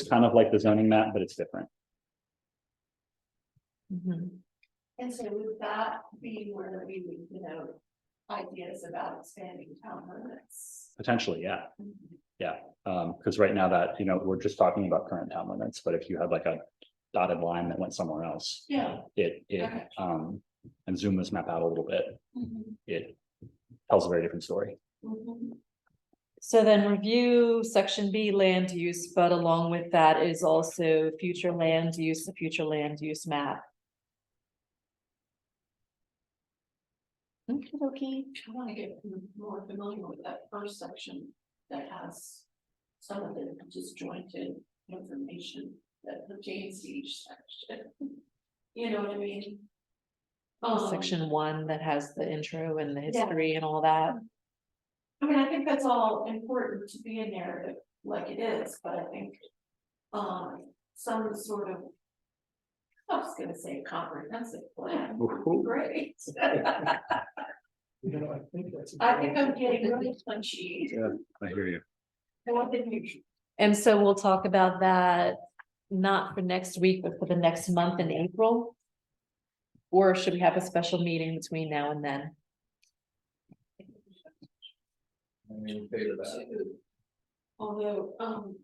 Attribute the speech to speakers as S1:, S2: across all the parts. S1: It's kind of like the zoning map, but it's different.
S2: Mm-hmm.
S3: And so would that be where we, would, you know, ideas about expanding town limits?
S1: Potentially, yeah.
S2: Mm-hmm.
S1: Um, because right now that, you know, we're just talking about current town limits, but if you had like a dotted line that went somewhere else.
S3: Yeah.
S1: It, it,
S3: Okay.
S1: um, and zoom this map out a little bit,
S3: Mhm,
S1: it tells a very different story.
S3: mhm.
S2: Mm-hmm. So then review section B land use, but along with that is also future land use, the future land use map. Okay, okay.
S3: I want to get more familiar with that first section that has some of the disjointed information that pertains to each section. You know what I mean? Um,
S2: Section one that has the intro and the
S3: Yeah.
S2: history and all that.
S3: I mean, I think that's all important to be a narrative like it is, but I think. Um, some sort of. I was gonna say comprehensive plan,
S1: Ooh.
S3: great.
S4: You know, I think that's.
S3: I think I'm getting really punchy.
S1: I hear you.
S3: I want the new-
S2: And so we'll talk about that, not for next week, but for the next month in April. Or should we have a special meeting between now and then?
S4: I'm in favor of that.
S3: Although, um.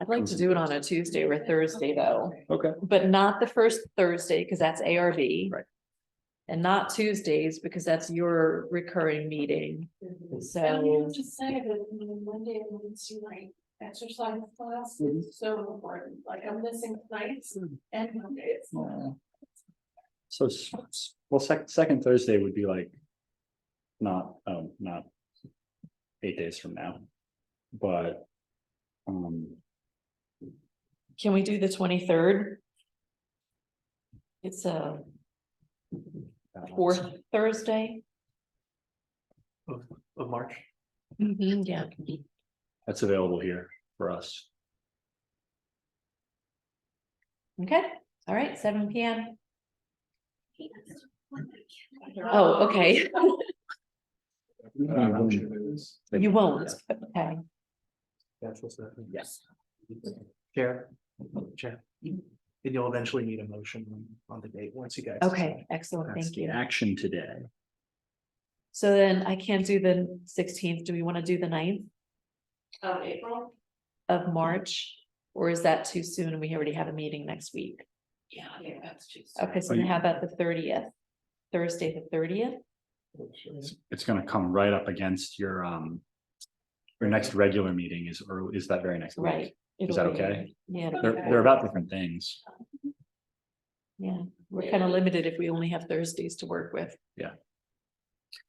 S2: I'd like to do it on a Tuesday or a Thursday though,
S1: Okay,
S2: but not the first Thursday because that's ARV.
S1: Right.
S2: And not Tuesdays because that's your recurring meeting.
S3: And you
S2: So
S3: have to say that you know, Monday and Wednesday night exercise class
S1: Mhm.
S3: is so important, like I'm missing nights and Mondays.
S1: so, s- s- well, sec- second Thursday would be like. Not, um, not. Eight days from now. But. Um,
S2: can we do the twenty-third? It's a fourth Thursday.
S4: Of March.
S2: Mm-hmm, yeah.
S1: that's available here for us.
S2: Okay, all right, seven P M.
S3: Um,
S2: Oh, okay,
S1: Um,
S2: you won't, okay.
S4: That's what's happening.
S1: Yes.
S4: Chair, Chair, and you'll eventually need a motion on the date once you guys.
S2: Okay, excellent,
S1: That's
S2: thank
S1: the
S2: you.
S1: action today.
S2: So then I can't do the sixteenth, do we want to do the 9th
S3: Of April,
S2: of March? Or is that too soon and we already have a meeting next week?
S3: yeah, I think that's too soon.
S2: Okay, so
S1: Are
S2: then
S1: you-
S2: how about the thirtieth? Thursday, the thirtieth?
S4: decide.
S1: It's- It's gonna come right up against your, um. Your next regular meeting is, or is that very next? week.
S2: Right.
S1: Is
S2: it'll
S1: that
S2: be-
S1: okay?
S2: Yeah, it'll be
S1: They're,
S2: okay.
S1: they're about different things.
S2: yeah, we're kind of limited if we only have Thursdays to work with.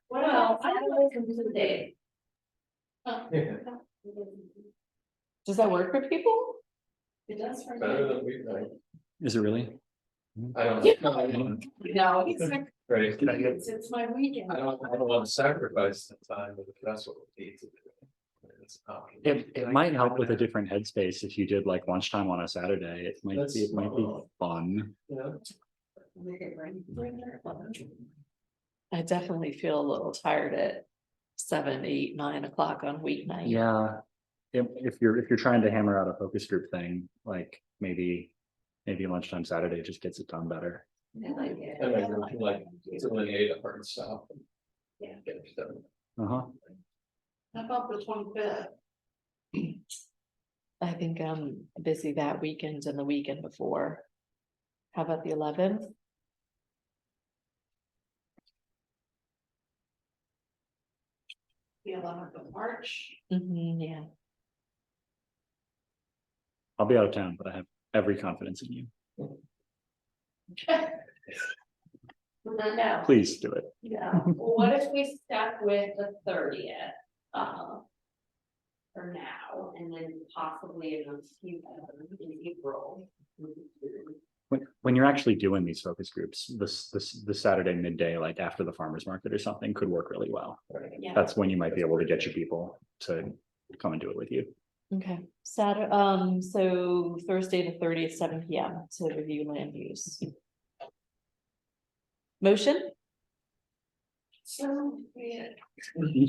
S3: Well, I don't come to the day. Uh,
S4: Yeah.
S2: Does that work for people?
S3: It does for
S5: Better
S3: me.
S5: than we, like,
S1: Is it really?
S5: I don't, know. I don't,
S3: No, he's like,
S5: right,
S4: Did I get-
S3: it's, it's my weekend.
S5: I don't, I don't want to sacrifice the time, but that's what we need to do. It's not-
S1: It, it might help with a different headspace if you did like lunchtime on a Saturday. It might be, it
S5: That's-
S1: might be fun.
S5: Yeah.
S3: Make it rain. Bring your lunch.
S2: I definitely feel a little tired at seven, eight, nine o'clock on weeknight.
S1: Yeah. If, if you're, if you're trying to hammer out a focus group thing, like maybe, maybe lunchtime Saturday just gets it done better.
S3: I like it.
S5: And I really like
S3: it.
S5: Delineate a hard stop.
S3: Yeah.
S5: Get it done.
S1: Uh huh.
S3: How about the twenty fifth?
S2: I think I'm busy that weekend and the weekend before. How about the eleventh?
S3: The eleventh of March.
S2: Mm-hmm, yeah.
S1: I'll be out of town, but I have every confidence in you.
S3: No, no,
S1: Please do it.
S3: yeah, what if we stuck with the thirtieth, uh. For now, and then possibly in a few, in April.
S1: When, when you're actually doing these focus groups, this, this, the Saturday midday, like after the farmer's market or something could work really well.
S3: Yeah.
S1: That's when you might be able to get your people to come and do it with you.
S2: Okay, Saturday, um, so Thursday the thirtieth, seven P M to review land use. Motion,
S3: So, yeah.